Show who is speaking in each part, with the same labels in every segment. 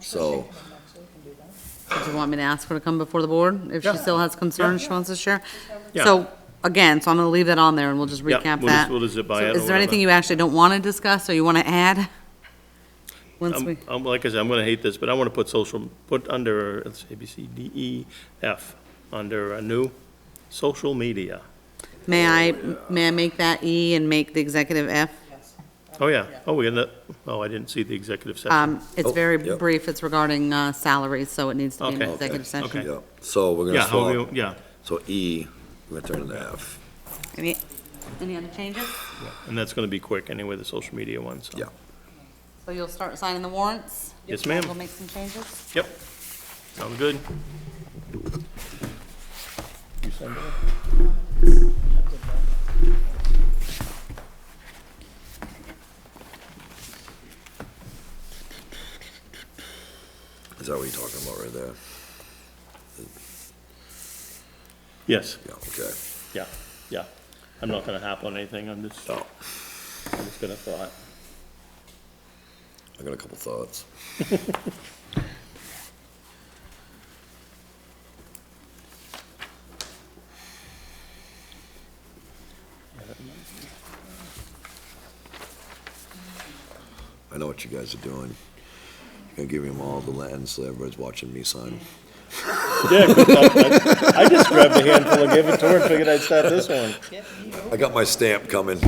Speaker 1: So,
Speaker 2: Do you want me to ask her to come before the board if she still has concerns she wants to share?
Speaker 3: Yeah.
Speaker 2: So, again, so I'm gonna leave that on there and we'll just
Speaker 3: Yeah,
Speaker 2: recap
Speaker 3: we'll just-
Speaker 2: that.
Speaker 3: we'll just zip by
Speaker 2: So
Speaker 3: it or
Speaker 2: Is there
Speaker 3: whatever.
Speaker 2: anything you actually don't want to discuss or you want to add? Once we,
Speaker 3: I'm, I'm- like I said, I'm gonna hate this, but I wanna put social, put under, let's see, A, B, C, D, E, F, under a new, social media.
Speaker 2: may I,
Speaker 3: uh,
Speaker 2: may I make that E and make the executive F?
Speaker 3: Oh, yeah, oh, we're gonna, oh, I didn't see the executive session.
Speaker 2: Um, it's
Speaker 1: Oh,
Speaker 2: very
Speaker 1: yeah.
Speaker 2: brief, it's regarding, uh, salaries, so it needs to be an
Speaker 3: Okay.
Speaker 2: executive session.
Speaker 3: Okay.
Speaker 1: yeah, so we're
Speaker 3: Yeah,
Speaker 1: gonna
Speaker 3: how
Speaker 1: swap,
Speaker 3: we- yeah,
Speaker 1: so E, we're gonna turn it to F.
Speaker 2: Any, any other changes?
Speaker 3: and that's gonna be quick anyway, the social media one, so.
Speaker 1: Yeah.
Speaker 2: So you'll start signing the warrants?
Speaker 3: Yes, ma'am.
Speaker 2: We'll make some changes?
Speaker 3: Yep, sounds good.
Speaker 1: Is that what you're talking about right there?
Speaker 3: Yes,
Speaker 1: Yeah, okay.
Speaker 3: yeah, yeah. I'm not gonna hop on anything, I'm just, I'm just gonna thought.
Speaker 1: I got a couple thoughts. I know what you guys are doing. You're gonna give them all the land so everybody's watching me sign.
Speaker 3: Yeah, I just grabbed a handful and gave it to her and figured I'd start this one.
Speaker 1: I got my stamp coming.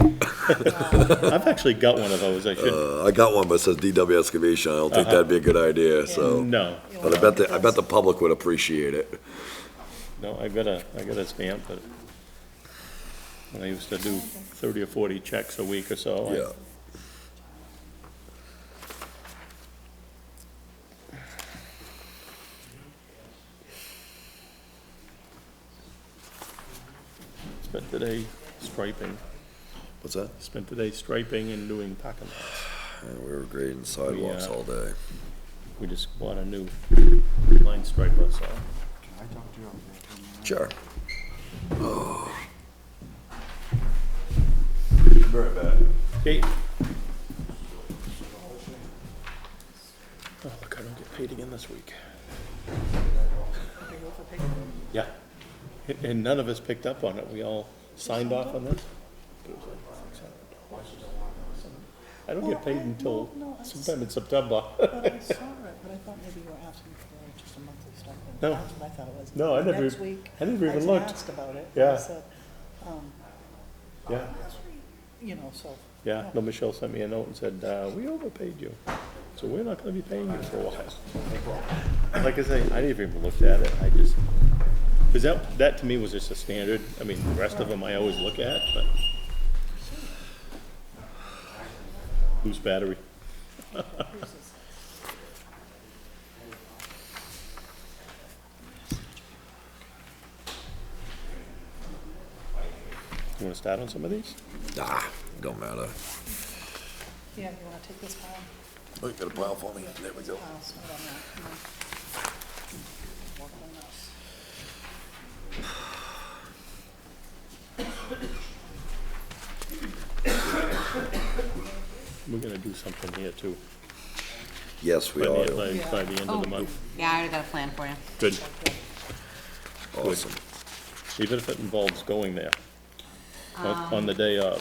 Speaker 3: I've actually got one of those, I should,
Speaker 1: Uh, I got one, but it says DW excavation. I don't think that'd be a good idea, so.
Speaker 3: Uh-huh. no.
Speaker 1: But I bet the, I bet the public would appreciate it.
Speaker 3: No, I got a, I got a stamp, but when I used to do thirty or forty checks a week or so. I-
Speaker 1: Yeah.
Speaker 3: Spent the day striping,
Speaker 1: What's that?
Speaker 3: spent the day striping and doing parking lots.
Speaker 1: Yeah, We were grading sidewalks
Speaker 3: uh,
Speaker 1: all day.
Speaker 3: We just bought a new line striper, so.
Speaker 4: I talked to you over there for a minute.
Speaker 1: Sure. Oh.
Speaker 3: Okay. Oh, look, I don't get paid again this week. Yeah. And- And none of us picked up on it. We all signed off on this. I don't get paid until sometime in September.
Speaker 5: But I saw it, but I thought maybe you were asking for just a monthly stipend.
Speaker 3: No.
Speaker 5: That's what I thought it was.
Speaker 3: No, I never-
Speaker 5: Next week,
Speaker 3: I never even
Speaker 5: was
Speaker 3: looked.
Speaker 5: asked about it.
Speaker 3: Yeah.
Speaker 5: I said, um,
Speaker 3: Yeah.
Speaker 5: you know, so,
Speaker 3: Yeah, no, Michelle sent me a note and said, uh, we overpaid you, so we're not gonna be paying you for a while. Like I say, I didn't even look at it, I just, cause that, that to me was just a standard, I mean, the rest of them I always look at, but. Whose battery? You wanna start on some of these?
Speaker 1: Nah, don't matter.
Speaker 5: yeah, you wanna take this pile?
Speaker 1: Oh, you got a pile for me? There we go.
Speaker 5: I'll start on that, you know. Work on this.
Speaker 3: We're gonna do something here too,
Speaker 1: Yes, we
Speaker 3: by
Speaker 1: are.
Speaker 3: the, by- by the end of the month.
Speaker 2: Yeah, I already got a plan for you.
Speaker 3: Good,
Speaker 1: Awesome.
Speaker 3: even if it involves going there on, on the day of.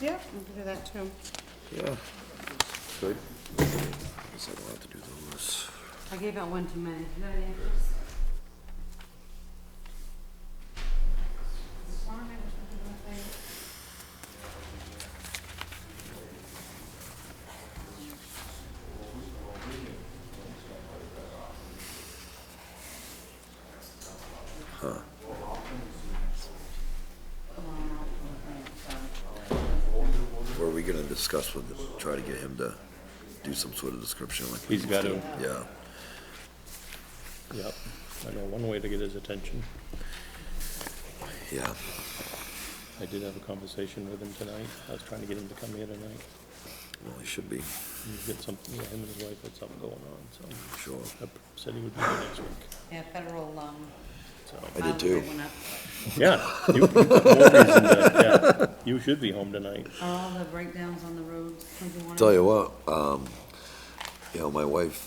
Speaker 2: Yeah, we can do that too.
Speaker 1: Yeah. Good. Guess I don't have to do those.
Speaker 2: I gave out one too many.
Speaker 1: Were we gonna discuss with, try to get him to do some sort of description like? we
Speaker 3: He's
Speaker 1: used
Speaker 3: got
Speaker 1: to?
Speaker 3: to,
Speaker 1: Yeah.
Speaker 3: yep. I know one way to get his attention.
Speaker 1: Yeah.
Speaker 3: I did have a conversation with him tonight. I was trying to get him to come here tonight.
Speaker 1: Well, he should be,
Speaker 3: He's got something, yeah, him and his wife had something going on, so
Speaker 1: sure.
Speaker 3: I said he would be here next week,
Speaker 2: Yeah, federal, um.
Speaker 3: so.
Speaker 1: I did too.
Speaker 3: Yeah, you, you put more reason to- yeah, you should be home tonight.
Speaker 2: All the breakdowns on the roads, something
Speaker 1: Tell you what, um, you know, my wife